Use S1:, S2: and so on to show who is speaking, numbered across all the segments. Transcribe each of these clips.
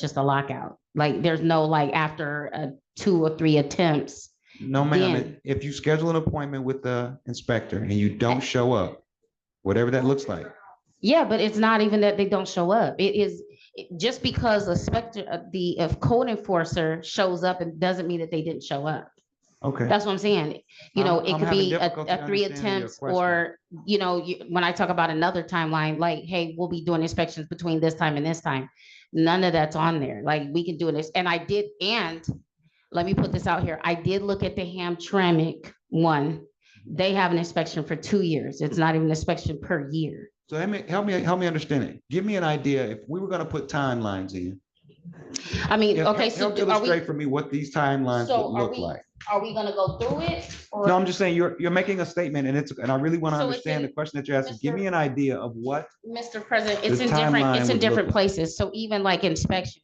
S1: just a lockout. Like, there's no like after uh, two or three attempts.
S2: No, ma'am,
S1: Then-
S2: If- if you schedule an appointment with the inspector and you don't show up, whatever that looks like,
S1: Yeah, but it's not even that they don't show up. It is it- just because a specter, uh, the if code enforcer shows up, it doesn't mean that they didn't show up.
S2: okay.
S1: That's what I'm saying. You know,
S2: I'm-
S1: it
S2: I'm
S1: could
S2: having
S1: be a,
S2: difficulty
S1: a three
S2: understanding your
S1: attempts or, you know, you, when I talk about another timeline, like, hey, we'll be doing inspections between this time and this time. None of that's on there. Like, we can do this. And I did, and let me put this out here. I did look at the Hamtramck one. They have an inspection for two years. It's not even an inspection per year.
S2: So let me, help me, help me understand it. Give me an idea. If we were gonna put timelines in.
S1: I mean,
S2: help-
S1: okay, so
S2: help
S1: do- are we,
S2: Illustrate for me what these timelines
S1: So
S2: would
S1: are
S2: look
S1: we-
S2: like.
S1: are we gonna go through it?
S2: No, I'm just saying, you're, you're making a statement and it's, and I really want to
S1: So it's
S2: understand the
S1: in-
S2: question that you're asking. Give
S1: Mr.
S2: me an idea of what,
S1: Mr. President, it's
S2: The
S1: in different,
S2: timeline
S1: it's
S2: would
S1: in
S2: look
S1: different
S2: like-
S1: places. So even like inspection.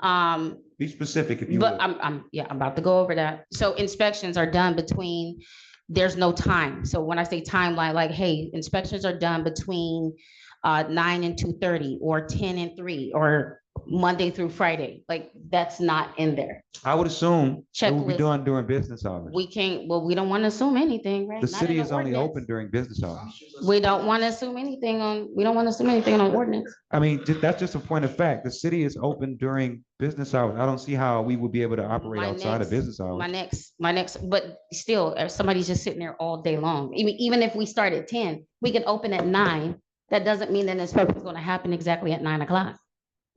S1: Um,
S2: be specific if you
S1: But
S2: would.
S1: I'm, I'm, yeah, I'm about to go over that. So inspections are done between, there's no time. So when I say timeline, like, hey, inspections are done between uh, nine and two thirty or ten and three or Monday through Friday. Like, that's not in there.
S2: I would assume it will be
S1: Checklist.
S2: done during business hours.
S1: We can't, well, we don't want to assume anything, right?
S2: The
S1: Not in
S2: city is only
S1: ordinance.
S2: open during business hours.
S1: We don't want to assume anything on, we don't want to assume anything on ordinance.
S2: I mean, ju- that's just a point of fact. The city is open during business hours. I don't see how we would be able to operate
S1: My
S2: outside
S1: next-
S2: of business
S1: My
S2: hours.
S1: next, my next, but still, if somebody's just sitting there all day long, even, even if we start at ten, we can open at nine. That doesn't mean that an inspection's gonna happen exactly at nine o'clock.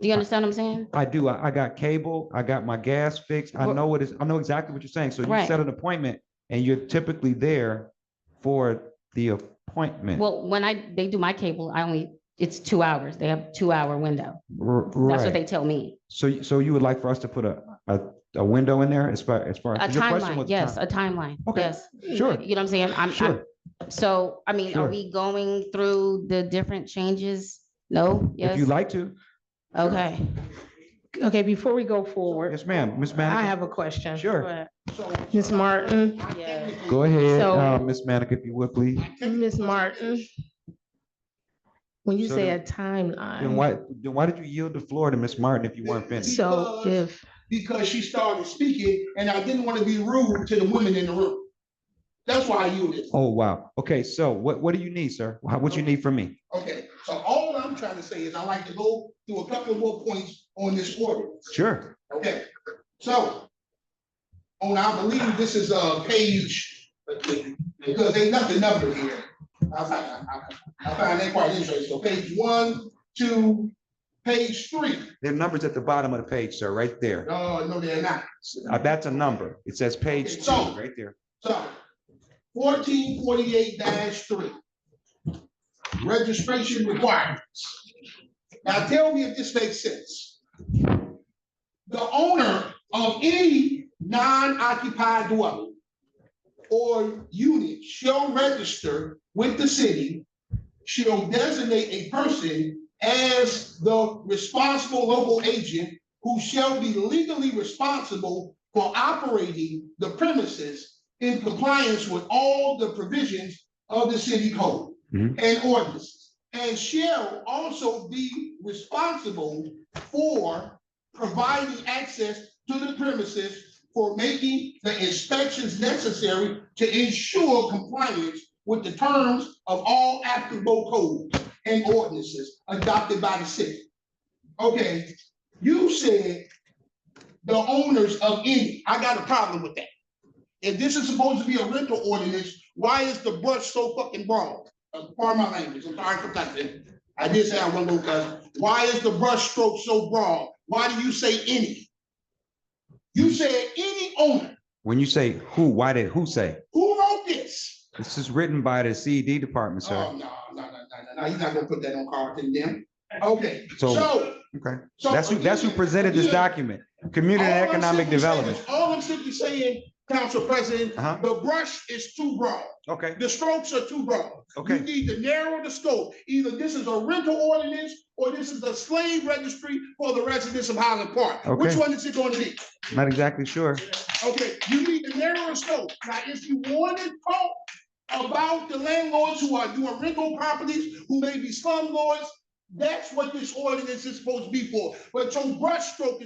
S1: Do you understand what I'm saying?
S2: I do. I, I got cable. I got my gas fixed. I
S1: Well-
S2: know what is, I know exactly what you're saying. So you
S1: Right.
S2: set an appointment and you're typically there for the appointment. R-
S1: Well, when I, they do my cable, I only, it's two hours. They have two hour window. That's what
S2: Right.
S1: they tell me.
S2: So, y- so you would like for us to put a, a, a window in there as far, as far?
S1: A
S2: 'cause your question was
S1: timeline,
S2: a
S1: yes,
S2: time-
S1: a timeline,
S2: Okay.
S1: yes.
S2: Sure,
S1: You know what I'm saying? I'm, I'm,
S2: sure.
S1: so, I mean, are
S2: Sure.
S1: we going through the different changes? No,
S2: If
S1: yes,
S2: you'd like to.
S1: okay.
S3: Okay, before we go forward,
S2: Yes, ma'am. Ms.
S3: I
S2: Manica,
S3: have a question.
S1: Go
S2: sure.
S1: ahead.
S3: Ms. Martin,
S2: Go ahead,
S3: So-
S2: uh, Ms. Manica, if you would, please.
S3: Ms. Martin. When you
S2: So
S3: say
S2: then-
S3: a
S2: Then
S3: timeline,
S2: why, then why did you yield the floor to Ms. Martin if you weren't finished?
S3: so if,
S4: because she started speaking and I didn't want to be rude to the women in the room. That's why I yielded.
S2: Oh, wow. Okay, so what, what do you need, sir? How- What you need from me?
S4: Okay, so all I'm trying to say is I like to go through a couple more points on this ordinance.
S2: Sure.
S4: Okay, so on, I believe this is a page, because they left the number here. I find, I I- I find that quite interesting. So page one, two, page three. Oh,
S2: There are numbers at the bottom of the page, sir, right there.
S4: No, no, they're not.
S2: Uh, That's a number. It says page two,
S4: So-
S2: right there.
S4: So fourteen forty-eight three. Registration requirements. Now tell me if this makes sense. The owner of any non-occupied dwelling or unit shall register with the city, shall designate a person as the responsible local agent who shall be legally responsible for operating the premises in compliance with all the provisions of the city code
S2: Mhm.
S4: and ordinances, and shall also be responsible for providing access to the premises for making the inspections necessary to ensure compliance with the terms of all applicable codes and ordinances adopted by the city. Okay, you said the owners of any, I got a problem with that. If this is supposed to be a rental ordinance, why is the brush so fucking broad? Uh, Pardon my language, I'm sorry for cussing. I did say I wasn't gonna cuss. Why is the brush stroke so broad? Why do you say any? You said any owner.
S2: When you say who, why did, who say?
S4: Who wrote this?
S2: This is written by the CED department,
S4: Oh,
S2: sir.
S4: no, no, no, no, no, no, he's not gonna put that on Carlton then. Okay,
S2: So-
S4: so.
S2: Okay.
S4: so
S2: That's who, that's who presented this
S4: again,
S2: document, Community and
S4: All I'm
S2: Economic
S4: simply saying-
S2: Development.
S4: All I'm simply saying, Council President,
S2: Uh-huh.
S4: the brush is too broad.
S2: Okay,
S4: The strokes are too broad. You
S2: okay.
S4: need to narrow the scope. Either this is a rental ordinance or this is a slave registry for the residents of Highland Park. Which
S2: Okay.
S4: one is it going to be?
S2: Not exactly sure.
S4: Okay, you need to narrow the scope. Now, if you want to talk about the landlords who are doing rental properties, who may be slumlords, That's what this ordinance is supposed to be for. But your brushstroke is